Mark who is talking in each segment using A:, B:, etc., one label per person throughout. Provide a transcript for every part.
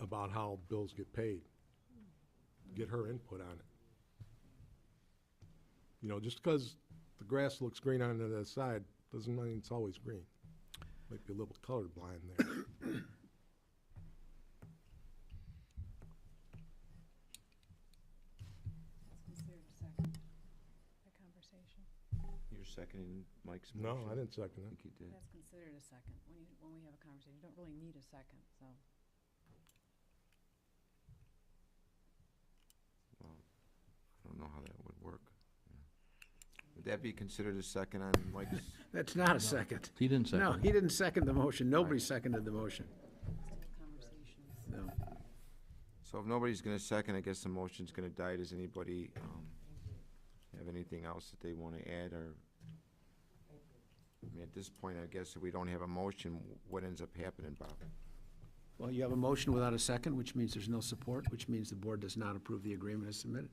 A: about how bills get paid. Get her input on it. You know, just because the grass looks green on the other side, doesn't mean it's always green. Might be a little colorblind there.
B: Is there a second, a conversation?
C: You're seconding Mike's
A: No,
C: motion?
A: I didn't second
C: I
A: it.
C: think you did.
B: That's considered a second. When you, when we have a conversation, you don't really need a second, so.
C: Well, I don't know how that would work. Yeah. Would that be considered a second on Mike's?
D: That's not a second.
E: He didn't
D: No,
E: second.
D: he didn't second the motion. Nobody seconded the motion.
B: Still conversations.
D: No.
C: So if nobody's gonna second, I guess the motion's gonna die. Does anybody, um, have anything else that they wanna add or? I mean, at this point, I guess if we don't have a motion, what ends up happening, Bob?
D: Well, you have a motion without a second, which means there's no support, which means the board does not approve the agreement as submitted.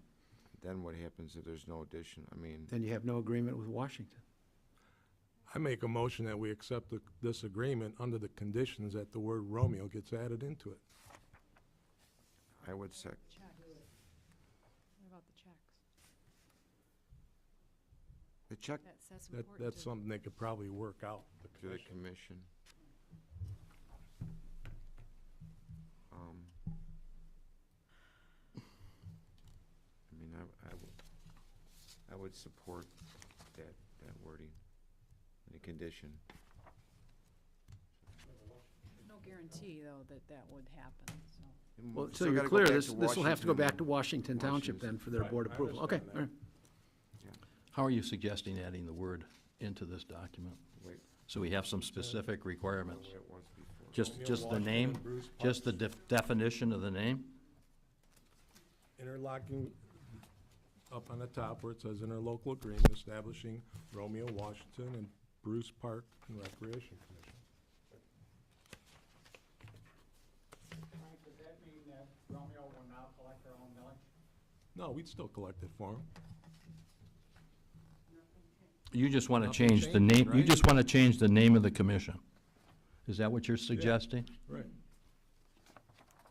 C: Then what happens if there's no addition? I mean,
D: Then you have no agreement with Washington.
A: I make a motion that we accept the- this agreement under the conditions that the word Romeo gets added into it.
C: I would sec,
B: Checks. What about the checks?
C: the check
B: That's, that's
A: That,
B: important.
A: that's
B: to-
A: something they could probably work out. the
C: to the
A: commission.
C: commission. Um, I mean, I, I would, I would support that, that wording, the condition.
B: No guarantee, though, that that would happen, so.
C: And
D: Well,
C: we
D: so
C: still
D: you're
C: gotta go
D: clear,
C: back
D: this,
C: to
D: this will have to go back to
C: Washington.
D: Washington Township then for their
A: Right,
D: board
A: I
D: approval. Okay,
A: understand
D: all right.
E: How are you suggesting adding the word into this document?
C: Wait,
E: So we have some specific
C: the
E: requirements?
C: way it was before.
E: Just,
A: Romeo
E: just the
A: Washington,
E: name?
A: Bruce
E: Just the def- definition of the name?
A: Interlocking up on the top where it says interlocal agreement establishing Romeo, Washington, and Bruce Park and Recreation Commission.
F: Mike, does that mean that Romeo will now collect their own millage?
A: No, we'd still collect it for them.
E: You just want to
A: Nothing
E: change the
A: changes,
E: name, you
A: right?
E: just want to change the name of the commission? Is that what you're suggesting?
A: Right.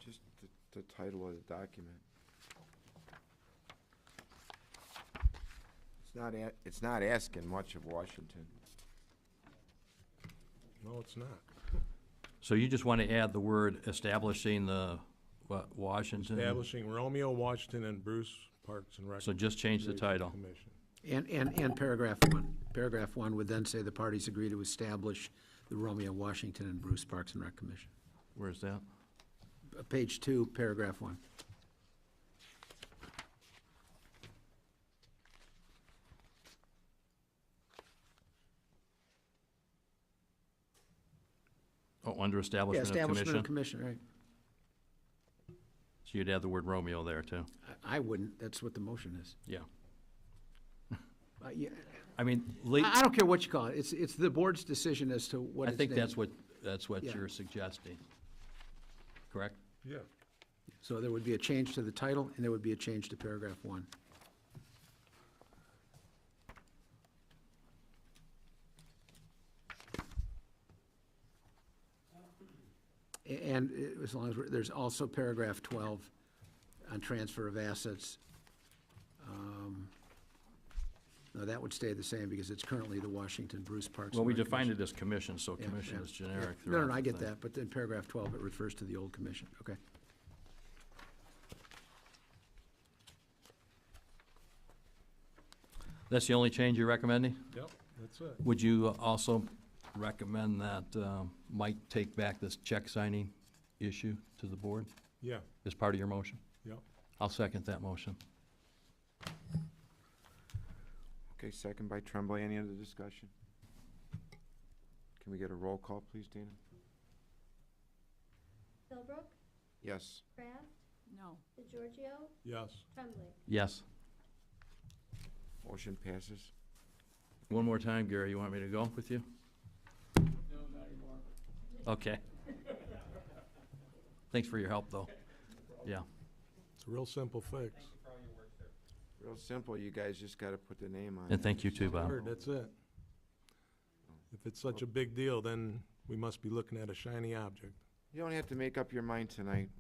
C: Just the, the title of the document. It's not a, it's not asking much of Washington.
A: No, it's not.
E: So you just want to add the word establishing the, what, Washington?
A: Establishing Romeo, Washington, and Bruce Parks and Recreation.
E: So just change the title.
A: Commission.
D: And, and, and paragraph one. Paragraph one would then say the parties agree to establish the Romeo Washington and Bruce Parks and Rec Commission.
E: Where's that?
D: Uh, Page two, paragraph one.
E: Oh, under
D: Yeah,
E: establishment of
D: establishment of
E: commission?
D: commission, right.
E: So you'd add the word Romeo there, too?
D: I, I wouldn't, that's what the motion is.
E: Yeah.
D: Uh, yeah,
E: I mean, late.
D: I I don't care what you call it, it's, it's the board's decision as to what
E: I
D: it's
E: think
D: named.
E: that's what, that's what
D: Yeah.
E: you're suggesting, correct?
A: Yeah.
D: So there would be a change to the title, and there would be a change to paragraph one. A- And uh, as long as, we're- there's also paragraph 12 on transfer of assets. Um, No, that would stay the same, because it's currently the Washington Bruce Parks.
E: Well, we
D: and Rec
E: defined
D: Commission.
E: it as commission, so
D: Yeah,
E: commission
D: yeah,
E: is generic
D: yeah. No, no,
E: throughout
D: no, I
E: the
D: get
E: thing.
D: that, but in paragraph 12, it refers to the old commission, okay.
E: That's the only change you're recommending?
A: Yep, that's it.
E: Would you also recommend that um, Mike take back this check signing issue to the board
A: Yeah,
E: as part of your motion?
A: yep.
E: I'll second that motion.
C: Okay, second by Tremblay. Any other discussion? Can we get a roll call, please, Dana?
G: Philbrook,
C: Yes.
G: Kraft,
B: No,
G: DeGiorgio,
A: Yes.
G: Tremblay.
E: Yes.
C: Motion passes.
E: One more time, Gary, you want me to go with you? Okay. Thanks for your help, though. Yeah.
A: It's a real simple fix.
C: Real simple. You guys just gotta put the name on.
E: And
C: it.
E: thank you too, Bob.
A: Heard, that's it. If it's such a big deal, then we must be looking at a shiny object.
C: You don't have to make up your mind tonight.